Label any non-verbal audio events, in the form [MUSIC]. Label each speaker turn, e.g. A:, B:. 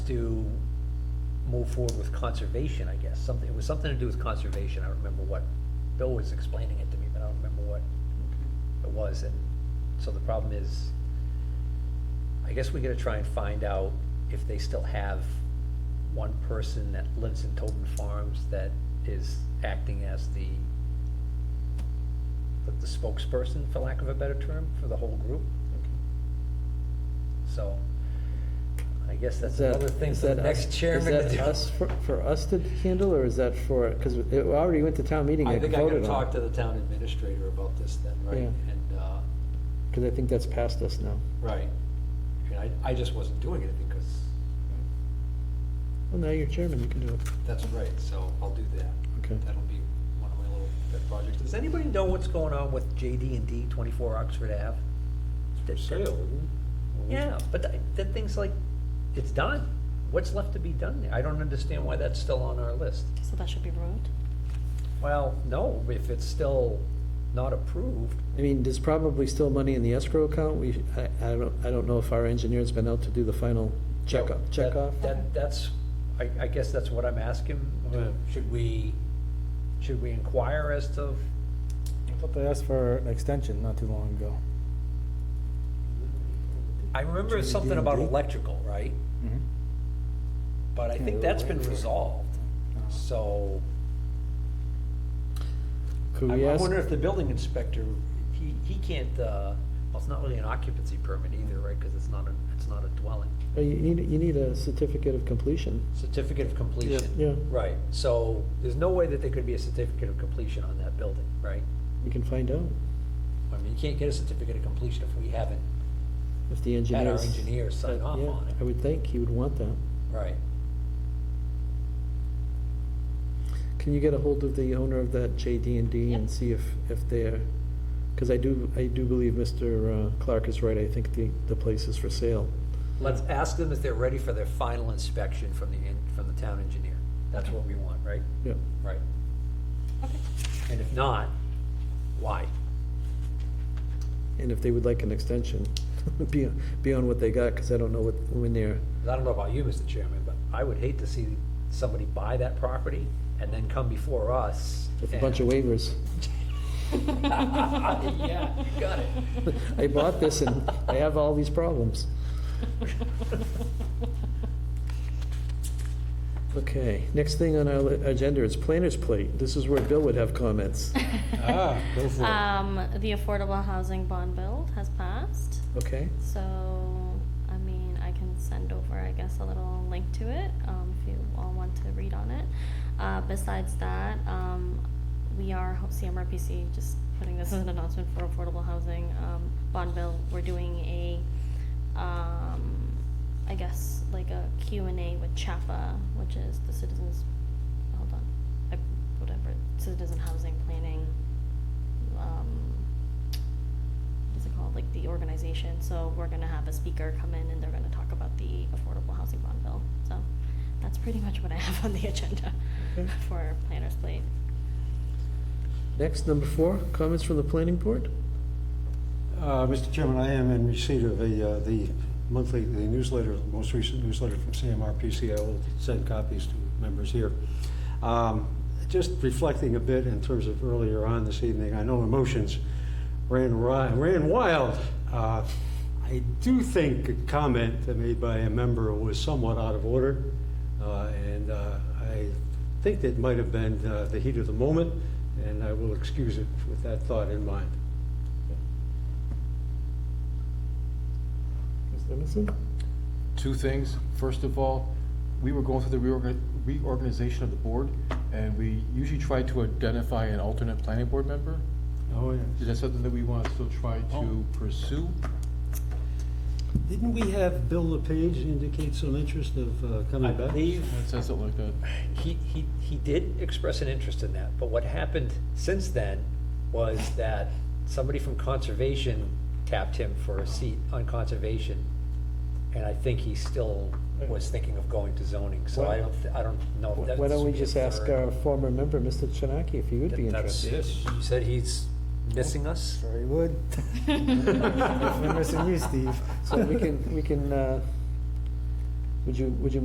A: move forward with conservation, I guess, something, it was something to do with conservation, I don't remember what, Bill was explaining it to me, but I don't remember what it was, and so the problem is, I guess we gotta try and find out if they still have one person that lives in Tobin Farms that is acting as the, the- the spokesperson, for lack of a better term, for the whole group, so I guess that's
B: Is that-
A: another thing
B: is
A: for the
B: that
A: next
B: us-
A: chairman to
B: Is
A: do.
B: that us, for- for us to handle, or is that for, because it already went to town meeting
C: I
B: and
C: think
B: voted
C: I
B: on?
C: gotta talk to the town administrator about this then, right?
B: Yeah.
C: And, uh,
B: Because I think that's past us now.
C: right, and I, I just wasn't doing anything, because
B: Well, now you're chairman, you can do it.
C: that's right, so I'll do that.
B: Okay.
C: That'll be one of my little pet projects.
A: Does anybody know what's going on with JD and D twenty-four Oxford Ave? That- that- Yeah, but that, that thing's like, it's done. What's left to be done there? I don't understand why that's still on our list.
D: So that should be removed?
A: Well, no, if it's still not approved,
B: I mean, there's probably still money in the escrow account. We, I, I don't, I don't know if our engineer's been out to do the final check up,
A: that-
B: check off.
A: That, that's, I, I guess that's what I'm asking. Uh, Should we, should we inquire as to,
E: I thought they asked for an extension not too long ago.
A: I remember something about
E: JD&D?
A: electrical, right?
F: Mm-hmm.
A: But I think that's been resolved, so.
B: Could
C: I
B: we
C: I
B: ask,
C: wonder if the building inspector,
A: He, he can't, uh, well, it's not really an occupancy permit either, right, because it's not a, it's not a dwelling.
B: oh, you need, you need a certificate of completion.
A: Certificate of completion.
B: Yeah,
A: Right, so there's no way that there could be a certificate of completion on that building, right?
B: we can find out
A: I mean, you can't get a certificate of completion if we haven't
B: if the engineer's.
A: had our engineer sign off
B: Yeah,
A: on
B: I
A: it,
B: would think he would want that.
A: right?
B: Can you get a hold of the owner of that JD and D and
D: Yep.
B: see if, if they're, because I do, I do believe Mr. uh, Clark is right, I think the, the place is for sale.
A: Let's ask them if they're ready for their final inspection from the, en- from the town engineer. That's what we want, right?
B: Yeah,
A: Right.
D: Okay.
A: And if not, why?
B: and if they would like an extension, [LAUGHS] beyond, beyond what they got, because I don't know what, when they're,
A: 'Cause I don't know about you, Mr. Chairman, but I would hate to see somebody buy that property and then come before us.
B: with a bunch of
A: and-
B: waivers. [LAUGHS]
A: Yeah, you got it.
B: I bought this and I have all these problems. Okay, next thing on our li- agenda is planner's plate. This is where Bill would have
D: [LAUGHS]
B: comments,
E: Ah, go for it.
D: Um, the affordable housing bond bill has passed,
B: okay?
D: so, I mean, I can send over, I guess, a little link to it, um, if you all want to read on it. Uh, besides that, um, we are, ho- CMRPC, just putting this as an announcement for affordable housing, um, bond bill, we're doing a, um, I guess, like a Q and A with CHAPA, which is the Citizens, hold on, I, whatever, Citizen Housing Planning, um, what's it called, like the organization, so we're gonna have a speaker come in and they're gonna talk about the affordable housing bond bill, so that's pretty much what I have on the [LAUGHS] agenda
B: Okay.
D: for planners plate.
B: Next, number four, comments from the planning board?
G: Uh, Mr. Chairman, I am in receipt of a, uh, the monthly, the newsletter, the most recent newsletter from CMRPC. I will send copies to members here. Um, Just reflecting a bit in terms of earlier on this evening, I know emotions ran ri- ran wild. Uh, I do think a comment that made by a member was somewhat out of order, uh, and uh, I think that might have been uh, the heat of the moment, and I will excuse it with that thought in mind.
B: Ms. Emerson?
F: two things. First of all, we were going through the reorga- reorganization of the board, and we usually try to identify an alternate planning board member.
G: Oh, yes.
F: Is that something that we want to still try to pursue?
G: Didn't we have Bill LePage indicate some interest of uh,
A: I
G: coming back?
A: believe
F: It says it like that.
A: he, he, he did express an interest in that, but what happened since then was that somebody from conservation tapped him for a seat on conservation, and I think he still was thinking of going to zoning, so I don't, I don't know. if
B: Why
A: that's-
B: don't we just ask uh, our former member, Mr. Chinaki, if he would be
A: That's-
B: interested?
A: You said he's missing us?
E: Sure he would.
D: [LAUGHS]
E: We're missing you, Steve.
B: So we can, we can, uh, would you, would you